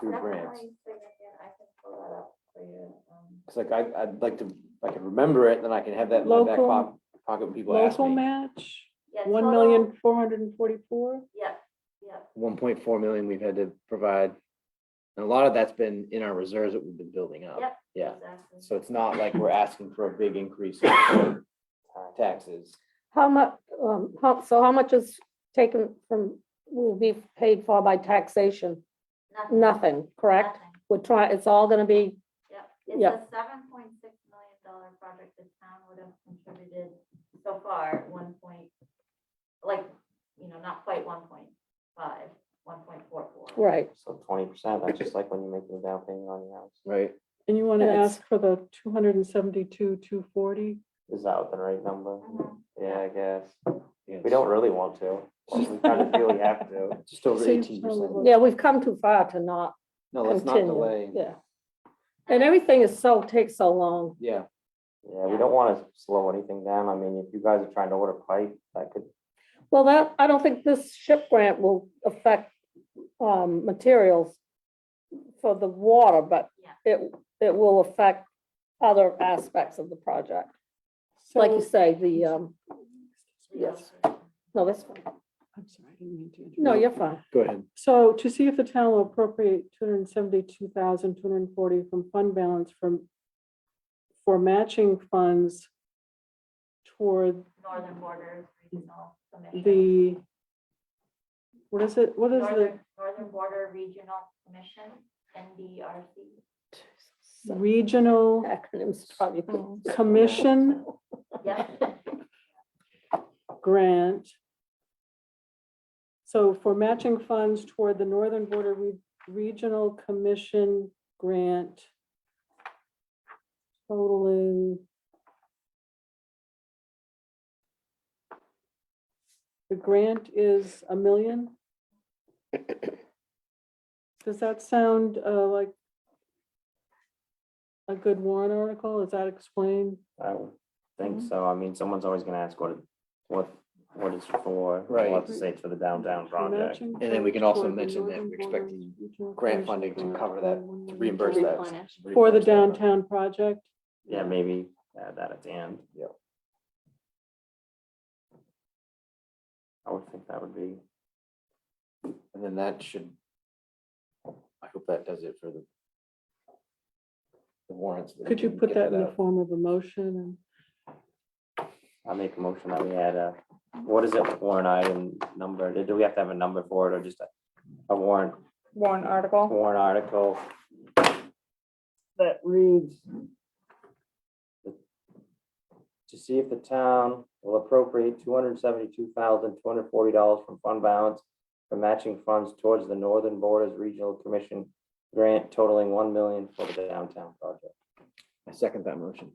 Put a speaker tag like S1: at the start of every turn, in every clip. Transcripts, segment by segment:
S1: through
S2: That's
S1: grants.
S2: my signature. I can pull that up for you. um,
S1: It's like I, I'd like to, I can remember it, then I can have that in my back
S3: Local-
S1: pocket, pocket when people ask
S3: Local
S1: me.
S3: match,
S2: yeah,
S3: one
S2: total-
S3: million, four hundred and forty-four.
S2: Yeah, yeah,
S1: One point four million we've had to provide. And a lot of that's been in our reserves that we've been building up.
S2: Yep.
S1: Yeah,
S2: exactly.
S1: so it's not like we're asking for a big increase in taxes.
S4: How much, um, how, so how much is taken from, will be paid for by taxation?
S2: Nothing,
S4: Nothing, correct?
S2: nothing.
S4: We're trying, it's all gonna be,
S2: Yep, it's
S4: Yep.
S2: a seven point six million dollar project the town would have contributed so far, one point, like, you know, not quite one point five, one point four four.
S4: right,
S5: So twenty percent, that's just like when you're making the down payment on your house.
S1: Right.
S3: And you want to
S4: And it's-
S3: ask for the two hundred and seventy-two, two forty?
S5: Is that the right number?
S2: Mhm.
S5: Yeah, I guess. We don't really want to. but We kind of feel we have to.
S1: Just over
S3: Seems
S1: eighteen percent.
S3: probably-
S4: yeah, we've come too far to not
S1: No, let's not delay.
S4: continue, yeah. And everything is so, takes so long,
S1: Yeah,
S5: Yeah, we don't want to slow anything down. I mean, if you guys are trying to order pipe, that could,
S4: well, that, I don't think this ship grant will affect, um, materials for the water, but
S2: Yeah.
S4: it, it will affect other aspects of the project, like you
S3: So,
S4: say, the, um,
S2: The
S4: Yes.
S2: illustration.
S4: no, that's, fine.
S3: I'm sorry, I didn't mean to interrupt.
S4: no, you're fine.
S1: go ahead.
S3: So to see if the town will appropriate two hundred and seventy-two thousand, two hundred and forty from fund balance from for matching funds toward
S2: Northern Borders Regional Commission.
S3: the what is it, what is the
S2: Northern, Northern Border Regional Commission, NDRC.
S4: So-
S3: regional
S4: acronyms probably.
S3: Oh,
S4: could-
S3: commission
S2: Yes,
S3: grant? So for matching funds toward the Northern Border Re- Regional Commission grant totaling the grant is a million? Does that sound uh, like a good warrant article? Is that explained?
S5: I don't think
S1: Mm-hmm.
S5: so. I mean, someone's always gonna ask what, it- what, what it's for.
S1: Right.
S5: What to say for the downtown project.
S3: Matching
S1: And then we can
S3: funds
S1: also
S3: toward the
S1: mention that
S3: Northern
S1: we're
S3: Border
S1: expecting
S3: Regional
S1: Grant
S3: Commission
S1: funding to
S3: grant
S1: cover that,
S3: totaling
S1: to
S3: $1 million.
S1: reimburse that.
S2: Replenish.
S3: For the
S1: Replenish that.
S3: downtown project,
S5: Yeah, maybe add that at the end.
S1: Yep.
S5: I would think that would be,
S1: And then that should, I hope that does it for the the warrants. that we
S3: could you
S1: can
S3: put
S1: get
S3: that in
S1: that
S3: the
S1: out.
S3: form of a motion?
S5: I make a motion that we add a, what is it, warrant item number? Do- Do we have to have a number for it or just a- a warrant,
S6: warrant article
S5: warrant article?
S6: that reads,
S5: to see if the town will appropriate two hundred seventy-two thousand, two hundred forty dollars from fund balance for matching funds towards the Northern Borders Regional Commission grant totaling one million for the downtown project.
S1: I second that motion.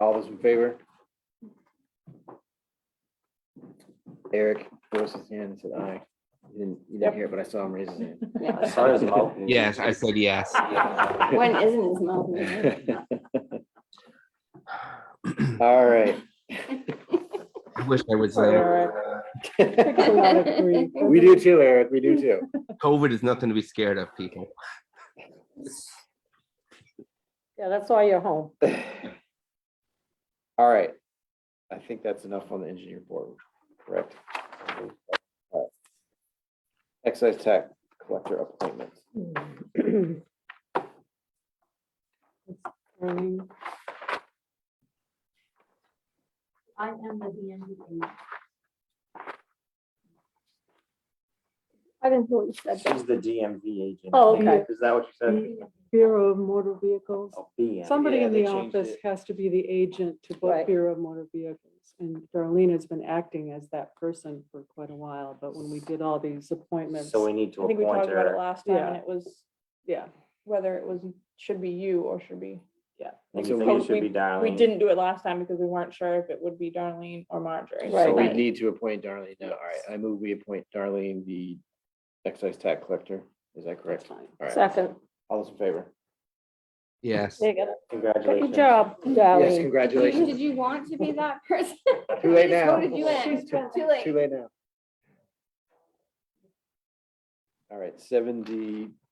S1: All those in favor? Eric raises his hand and said aye. You didn't, you didn't hear it, but I saw him raise his hand.
S5: I saw his mouth move.
S7: Yes, I said yes.
S6: when isn't his mouth moving?
S1: All right,
S7: I wish I was there.
S3: and- Takes a lot of grief.
S1: we do too, Eric, we do too.
S7: COVID is nothing to be scared of, people.
S4: Yeah, that's why you're home.
S1: All right, I think that's enough on the engineer board, correct? All right. Excise tax collector appointment.
S3: Earning.
S2: I am the DMV.
S4: I didn't know what you said. but-
S5: She's the DMV agent.
S4: Oh, okay.
S5: Is that what you said?
S3: Bureau of Motor Vehicles.
S5: Oh, BM.
S3: Somebody
S1: yeah,
S3: in
S1: they
S3: the
S1: changed
S3: office
S1: it.
S3: has to be the agent to book
S4: Right.
S3: Bureau of Motor Vehicles. And Darlene has been acting as that person for quite a while, but when we did all these appointments,
S5: So we need to
S6: I think we
S5: appoint
S6: talked about it
S5: her.
S6: last time and
S3: Yeah.
S6: it was
S3: yeah.
S6: whether it was, should be you or should be.
S5: And
S1: So
S5: you think
S6: we-
S5: it should be Darlene?
S6: We didn't do it last time because we weren't sure if it would be Darlene or Marjorie.
S1: So
S4: Right.
S1: we need to appoint Darlene now. All right, I move we appoint Darlene the excise tax collector. Is that
S3: that's
S1: correct?
S3: fine.
S1: All right,
S4: Second,
S1: all those in favor?
S7: Yes.
S4: there you go.
S5: Congratulations.
S4: Good job,
S1: Yes,
S4: Darlene.
S1: congratulations.
S8: Did you want to be that person?
S1: Too late
S8: just
S1: now.
S8: voted you in.
S1: It's too-
S8: Too late.
S1: Too late now. All right, seven D uh,